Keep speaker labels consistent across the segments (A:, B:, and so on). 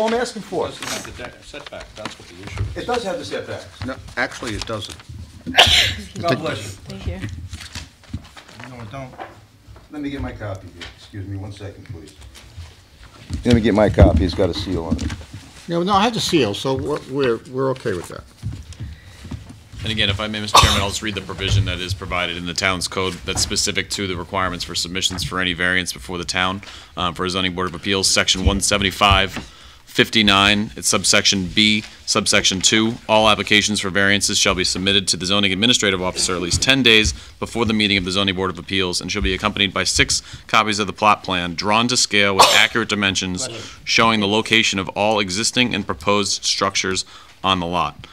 A: all I'm asking for.
B: Doesn't have the de- setback, that's what the issue
A: It does have the setbacks.
C: No, actually, it doesn't.
A: God bless you.
D: Thank you.
E: No, I don't.
A: Let me get my copy here. Excuse me one second, please. Let me get my copy. It's got a seal on it.
C: No, no, I have the seal, so we're- we're, we're okay with that.
F: And again, if I may, Mr. Chairman, I'll just read the provision that is provided in the town's code that's specific to the requirements for submissions for any variance before the town uh, for a zoning board of appeals, section 175, 59, it's subsection B, subsection 2. All applications for variances shall be submitted to the zoning administrative officer at least 10 days before the meeting of the zoning board of appeals and shall be accompanied by six copies of the plot plan drawn to scale with accurate dimensions showing the location of all existing and proposed structures on the lot.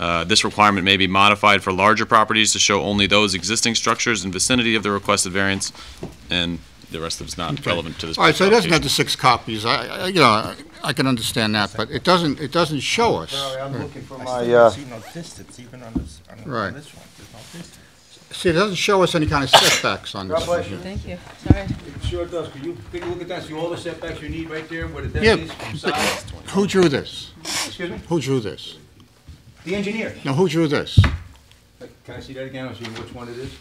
F: Uh, This requirement may be modified for larger properties to show only those existing structures in vicinity of the requested variance, and the rest of it's not relevant to this.
C: All right, so it doesn't have the
F: application.
C: six copies, I, I- you know, I- I can understand that, but it doesn't, it doesn't show us.
A: I'm looking for
E: I
A: my,
E: still
A: uh,
E: see no distance, even on this, on
C: Right.
E: on this one, there's no distance.
C: See, it doesn't show us any kind of setbacks on
A: God
C: this.
A: bless you.
D: Thank you. Sorry.
A: It sure does. Could you take a look at that? See all the setbacks you need right there where the
C: Yeah,
A: deck is from side?
C: but who drew this?
A: Excuse me?
C: Who drew this?
A: The engineer.
C: No, who drew this?
A: Can I see that again? I'll see which one it is.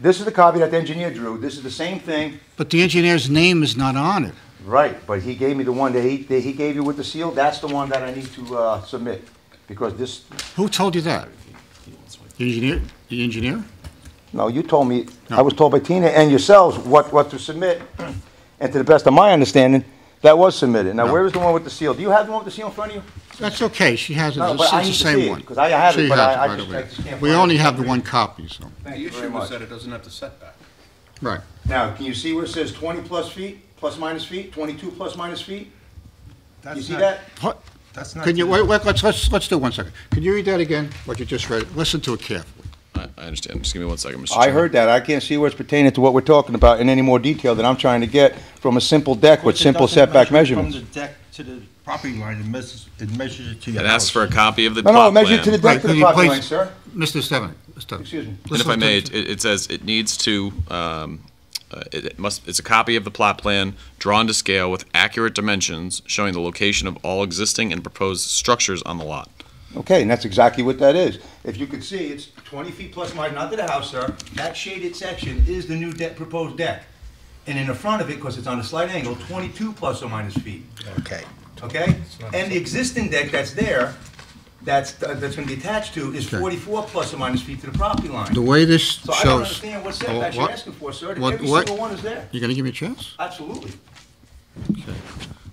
A: This is the copy that the engineer drew. This is the same thing.
C: But the engineer's name is not on it.
A: Right, but he gave me the one that he, that he gave you with the seal. That's the one that I need to, uh, submit. Because this,
C: Who told you that? The engineer, the engineer?
A: No, you told me, I
C: No.
A: was told by Tina and yourselves what, what to submit, and to the best of my understanding, that was submitted. Now,
C: No.
A: where is the one with the seal? Do you have the one with the seal in front of you?
C: That's okay, she has it,
A: No,
C: it's
A: but I need
C: it's the
A: to see
C: same
A: it,
C: one.
A: 'cause I have it,
C: She
A: but
C: has
A: I- I
C: right
A: just-
C: away.
A: I just can't
C: We
A: find
C: only
A: it.
C: have the one copy, so,
A: Thank
B: The
A: you very
B: issue
A: much.
B: is that it doesn't have the setback.
C: right.
A: Now, can you see where it says twenty plus feet, plus minus feet, twenty-two plus minus feet? You
E: That's
A: see
E: not-
A: that?
C: What-
E: That's not.
C: Can you,
E: to-
C: wait, wait, let's, let's, let's do one second. Can you read that again, what you just read? Listen to it carefully.
F: I I understand, just give me one second, Mr.
A: I
F: Chairman.
A: heard that. I can't see where it's pertaining to what we're talking about in any more detail than I'm trying to get from a simple deck with
E: Because it
A: simple
E: doesn't
A: setback
E: measure
A: measurements.
E: From the deck to the property line, it measures, it measures it to your
F: It
E: house.
F: asks for a copy of the
A: No, no,
F: plot
A: measure it to the
F: plan.
A: deck to the
C: Right, can you
A: property
C: please-
A: line, sir.
C: Mr. Stefanik, Mr.
A: Excuse me.
F: And if I
C: Listen
F: may,
C: to-
F: it it says it needs to, um, uh, it it must, it's a copy of the plot plan drawn to scale with accurate dimensions showing the location of all existing and proposed structures on the lot.
A: Okay, and that's exactly what that is. If you could see, it's 20 feet plus minus, not to the house, sir. That shaded section is the new deck, proposed deck. And in the front of it, because it's on a slight angle, 22 plus or minus feet,
E: Okay.
A: okay? And the existing deck that's there, that's, uh, that's going to be attached to, is
C: Okay.
A: 44 plus or minus feet to the property line.
C: The way this shows.
A: So
C: Oh,
A: I don't understand what setbacks you're
C: What-
A: asking for, sir.
C: what-
A: Every
C: what-
A: single one is there.
C: You gonna give me a chance?
A: Absolutely.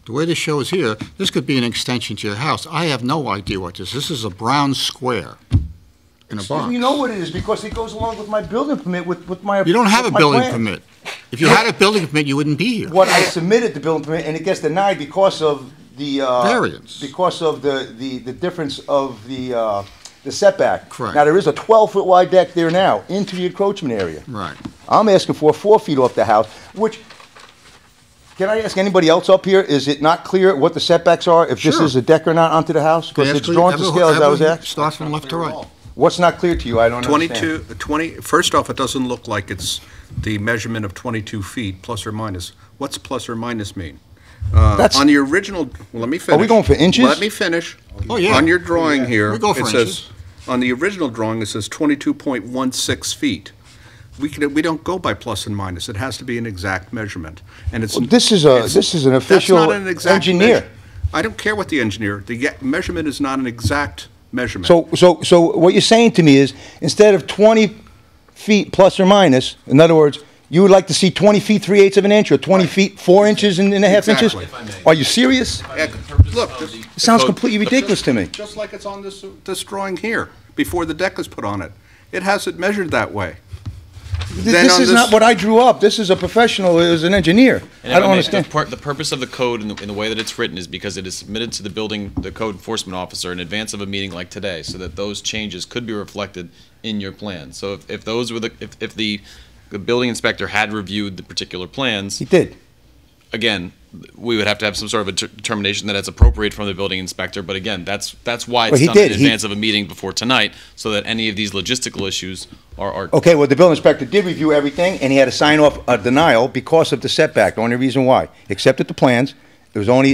C: The way this shows here, this could be an extension to your house. I have no idea what this, this is a brown square in a box.
A: You know what it is, because it goes along with my building permit, with, with my.
C: You don't have a
A: with my
C: building
A: plan.
C: permit. If you had a building permit, you wouldn't be here.
A: what I submitted the building permit, and it gets denied because of the, uh.
C: Variance.
A: Because of the, the, the difference of the, uh, the setback.
C: Correct.
A: Now, there is a twelve-foot wide deck there now, into the encroachment area.
C: Right.
A: I'm asking for four feet off the house, which, can I ask anybody else up here, is it not clear what the setbacks are? If this
C: Sure.
A: is a deck or not onto the house? Because it's drawn to scale, as I was asked.
C: Starts from left to right.
A: What's not clear to you? I don't understand.
G: 22, 20, first off, it doesn't look like it's the measurement of 22 feet, plus or minus. What's plus or minus mean? Uh,
A: That's-
G: On the original, well, let me finish.
A: going for inches?
G: Let me finish.
C: Oh, yeah.
G: On your drawing here.
C: We go for
G: it says-
C: inches.
G: On the original drawing, it says 22.16 feet. We can, we don't go by plus and minus. It has to be an exact measurement, and it's.
A: Well, this is a-
G: it's-
A: this is an
G: that's
A: official
G: not an exact
A: engineer.
G: measure. I don't care what the engineer, the ye- measurement is not an exact measurement.
A: So, so, so what you're saying to me is, instead of 20 feet plus or minus, in other words, you would like to see 20 feet, 3 eighths of an inch, or 20 feet, 4 inches and and a half inches?
G: Exactly. If I
A: Are you serious?
G: Yeah,
F: The purpose
G: Look,
F: of
G: this-
F: the-
A: It sounds
F: the code-
A: completely ridiculous to me.
G: Just- Just like it's on this, this drawing here, before the deck is put on it. It has it measured that way.
A: Th-
G: Then
A: This
G: on
A: is
G: this-
A: not what I drew up. This is a professional, is an engineer.
F: And
A: I
F: if
A: don't
F: I may, the
A: understand.
F: pur- The purpose of the code and the, and the way that it's written is because it is submitted to the building, the code enforcement officer in advance of a meeting like today, so that those changes could be reflected in your plan. So if, if those were the, if, if the, the building inspector had reviewed the particular plans,
A: He did.
F: again, we would have to have some sort of a ter- determination that it's appropriate from the building inspector, but again, that's, that's why
A: Well,
F: it's
A: he
F: done in
A: did. He-
F: advance of a meeting before tonight, so that any of these logistical issues are, are
A: Okay, well, the building inspector did review everything, and he had to sign off a denial because of the setback, the only reason why. Accepted the plans. It was only